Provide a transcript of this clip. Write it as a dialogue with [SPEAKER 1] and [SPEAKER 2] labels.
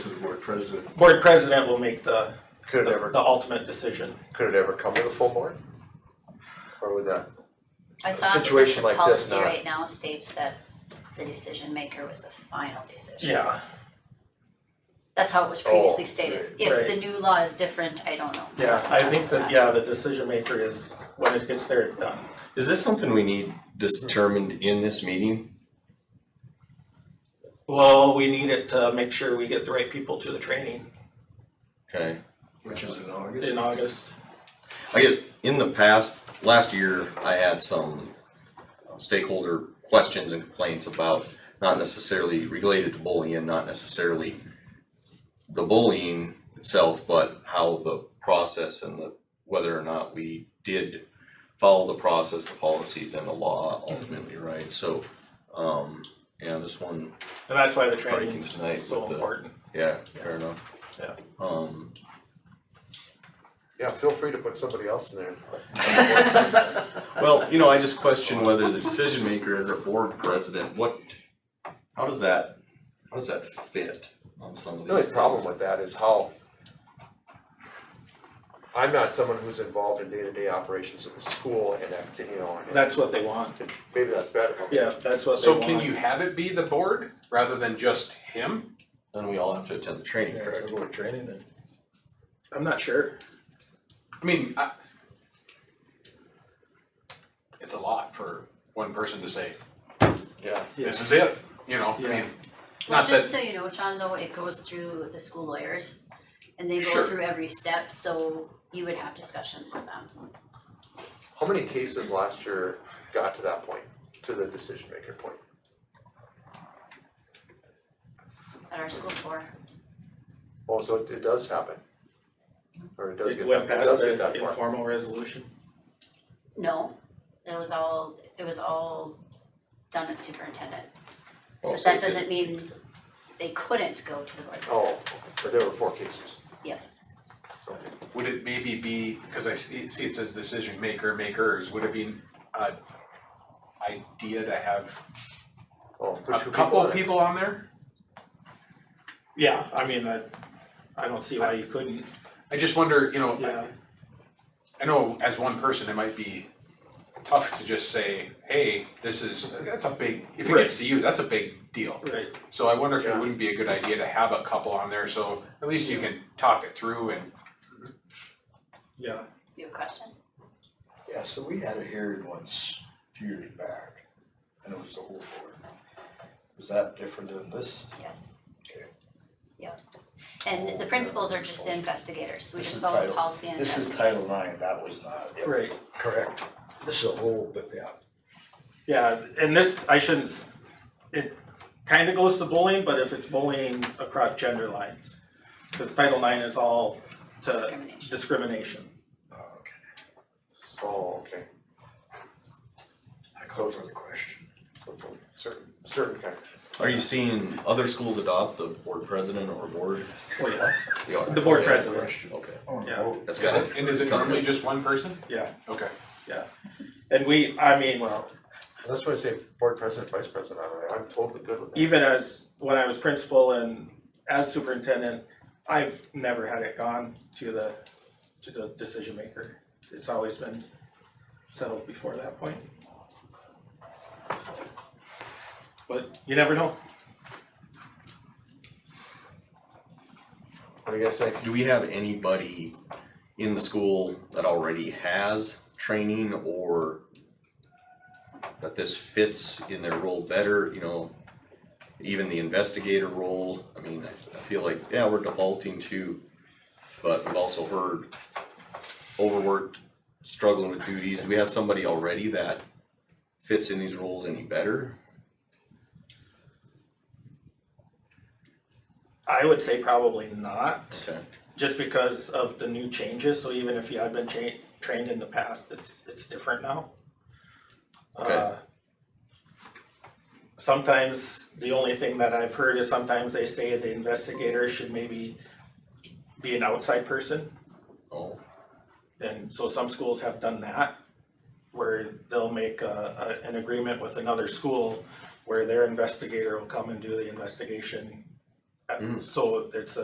[SPEAKER 1] board president.
[SPEAKER 2] Board president will make the,
[SPEAKER 3] Could it ever,
[SPEAKER 2] the ultimate decision.
[SPEAKER 3] could it ever come to the full board? Or would that,
[SPEAKER 4] I thought that
[SPEAKER 3] situation
[SPEAKER 4] the
[SPEAKER 3] like this
[SPEAKER 4] policy
[SPEAKER 3] not-
[SPEAKER 4] right now states that the decision maker was the final decision.
[SPEAKER 2] Yeah,
[SPEAKER 4] That's how it was
[SPEAKER 3] Oh,
[SPEAKER 4] previously stated. If
[SPEAKER 2] right.
[SPEAKER 4] the new law is different, I don't know.
[SPEAKER 2] yeah, I think that, yeah, the decision maker is, when it gets there, it's done.
[SPEAKER 5] Is this something we need determined in this meeting?
[SPEAKER 2] Well, we need it to make sure we get the right people to the training
[SPEAKER 5] Okay.
[SPEAKER 1] Which is in
[SPEAKER 2] in
[SPEAKER 1] August.
[SPEAKER 2] August.
[SPEAKER 5] I guess in the past, last year, I had some uh, stakeholder questions and complaints about not necessarily related to bullying, not necessarily the bullying itself, but how the process and the, whether or not we did follow the process, the policies and the law ultimately, right? So, um, yeah, this one,
[SPEAKER 2] And that's why the
[SPEAKER 5] Probably
[SPEAKER 2] training
[SPEAKER 5] can tonight
[SPEAKER 2] is so
[SPEAKER 5] with the-
[SPEAKER 2] important.
[SPEAKER 5] yeah, fair enough.
[SPEAKER 2] Yeah.
[SPEAKER 5] Um,
[SPEAKER 3] yeah, feel free to put somebody else in there.
[SPEAKER 5] Well, you know, I just question whether the decision maker is a board president, what, how does that, how does that fit on some of these
[SPEAKER 3] The only
[SPEAKER 5] things?
[SPEAKER 3] problem with that is how I'm not someone who's involved in day-to-day operations of the school and that, you know, and
[SPEAKER 2] That's what they want.
[SPEAKER 3] maybe that's better.
[SPEAKER 2] Yeah, that's what they
[SPEAKER 6] So
[SPEAKER 2] want.
[SPEAKER 6] can you have it be the board rather than just him?
[SPEAKER 5] Then we all have to attend the training,
[SPEAKER 1] Yeah, it's a
[SPEAKER 5] correct?
[SPEAKER 1] board training day.
[SPEAKER 2] I'm not sure.
[SPEAKER 6] I mean, I. It's a lot for one person to say,
[SPEAKER 3] Yeah.
[SPEAKER 6] this is it, you know, I
[SPEAKER 2] Yeah.
[SPEAKER 6] mean,
[SPEAKER 4] Well,
[SPEAKER 6] Not
[SPEAKER 4] just so you know, John, though, it goes through the school lawyers and they go
[SPEAKER 6] Sure.
[SPEAKER 4] through every step, so you would have discussions with them.
[SPEAKER 3] How many cases last year got to that point, to the decision maker point?
[SPEAKER 4] At our school for,
[SPEAKER 3] Oh, so it, it does happen. Or it does
[SPEAKER 2] It
[SPEAKER 3] get
[SPEAKER 2] went
[SPEAKER 3] that, it
[SPEAKER 2] past
[SPEAKER 3] does get that
[SPEAKER 2] the
[SPEAKER 3] far.
[SPEAKER 2] informal resolution.
[SPEAKER 4] no, it was all, it was all done at superintendent. But
[SPEAKER 5] Well, Oh, so
[SPEAKER 4] that
[SPEAKER 5] it did-
[SPEAKER 4] doesn't mean they couldn't go to the board
[SPEAKER 3] Oh,
[SPEAKER 4] president,
[SPEAKER 3] but there were four cases.
[SPEAKER 4] yes.
[SPEAKER 6] would it maybe be, cause I see, see it says decision maker, makers, would it be a idea to have
[SPEAKER 3] Oh,
[SPEAKER 6] a
[SPEAKER 3] put two people
[SPEAKER 6] couple
[SPEAKER 3] on
[SPEAKER 6] of
[SPEAKER 3] it.
[SPEAKER 6] people on there?
[SPEAKER 2] Yeah, I mean, I, I don't see why you couldn't,
[SPEAKER 6] I just wonder, you know, I-
[SPEAKER 2] yeah.
[SPEAKER 6] I know as one person, it might be tough to just say, hey, this is, that's a big, if it gets to you, that's a big deal.
[SPEAKER 2] Right,
[SPEAKER 6] So I wonder if it
[SPEAKER 3] Yeah.
[SPEAKER 6] wouldn't be a good idea to have a couple on there, so at least you can talk it through and,
[SPEAKER 2] yeah,
[SPEAKER 4] You have a question?
[SPEAKER 1] Yeah, so we had a hearing once, a few years back, and it was the whole board. Was that different than this?
[SPEAKER 4] Yes.
[SPEAKER 1] Okay.
[SPEAKER 4] Yeah, and the principals are just the investigators, so we
[SPEAKER 1] This
[SPEAKER 4] just
[SPEAKER 1] is
[SPEAKER 4] follow the
[SPEAKER 1] title-
[SPEAKER 4] policy and
[SPEAKER 1] This is
[SPEAKER 4] investigate.
[SPEAKER 1] Title IX, that was not. yep,
[SPEAKER 2] right.
[SPEAKER 1] Correct. This is a whole, but yeah.
[SPEAKER 2] Yeah, and this, I shouldn't, s- it kind of goes to bullying, but if it's bullying across gender lines. Because Title IX is all to
[SPEAKER 4] Discrimination.
[SPEAKER 2] discrimination.
[SPEAKER 1] Oh, okay.
[SPEAKER 3] Oh, okay.
[SPEAKER 1] I call for the question.
[SPEAKER 3] So it's a Certain, certain kind.
[SPEAKER 5] Are you seeing other schools adopt the board president or board?
[SPEAKER 2] Oh, yeah.
[SPEAKER 5] They are.
[SPEAKER 2] The board
[SPEAKER 1] Yeah,
[SPEAKER 2] president,
[SPEAKER 1] question. Oh,
[SPEAKER 5] Okay,
[SPEAKER 1] I wanna
[SPEAKER 2] Yeah.
[SPEAKER 1] vote.
[SPEAKER 5] that's
[SPEAKER 6] is
[SPEAKER 5] got
[SPEAKER 6] it,
[SPEAKER 5] it.
[SPEAKER 6] and is it normally just one person?
[SPEAKER 2] yeah,
[SPEAKER 6] Okay.
[SPEAKER 2] yeah. And we, I mean,
[SPEAKER 3] Well, that's why I say board president, vice president, I'm, I'm totally good with that.
[SPEAKER 2] even as, when I was principal and as superintendent, I've never had it gone to the, to the decision maker. It's always been settled before that point. But you never know.
[SPEAKER 3] I guess like,
[SPEAKER 5] Do we have anybody in the school that already has training or that this fits in their role better, you know? Even the investigator role, I mean, I I feel like, yeah, we're defaulting to, but we've also heard overworked, struggling with duties. Do we have somebody already that fits in these roles any better?
[SPEAKER 2] I would say probably not,
[SPEAKER 5] Okay,
[SPEAKER 2] just because of the new changes, so even if you had been cha- trained in the past, it's, it's different now.
[SPEAKER 5] Okay.
[SPEAKER 2] Uh, Sometimes, the only thing that I've heard is sometimes they say the investigator should maybe be an outside person,
[SPEAKER 5] oh,
[SPEAKER 2] and so some schools have done that. Where they'll make a, a, an agreement with another school where their investigator will come and do the investigation. Uh,
[SPEAKER 5] Mm.
[SPEAKER 2] So it's a